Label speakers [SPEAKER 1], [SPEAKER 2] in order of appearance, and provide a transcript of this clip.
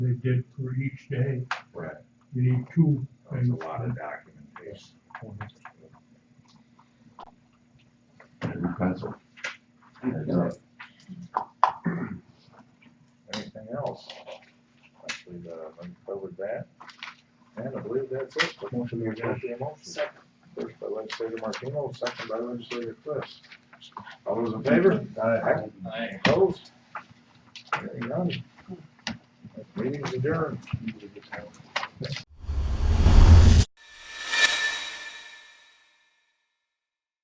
[SPEAKER 1] they did for each day.
[SPEAKER 2] Right.
[SPEAKER 1] You need two
[SPEAKER 2] There's a
[SPEAKER 1] things.
[SPEAKER 2] lot of documentation.
[SPEAKER 3] and a pencil.
[SPEAKER 2] That's it. Anything else? Actually, uh, I covered that. And I believe that's it. The motion is against the motion. First by legislator Martino, second by legislator Twist. All those in favor? Aye.
[SPEAKER 4] Aye.
[SPEAKER 2] Opposed? Hearing none. Meeting's adjourned.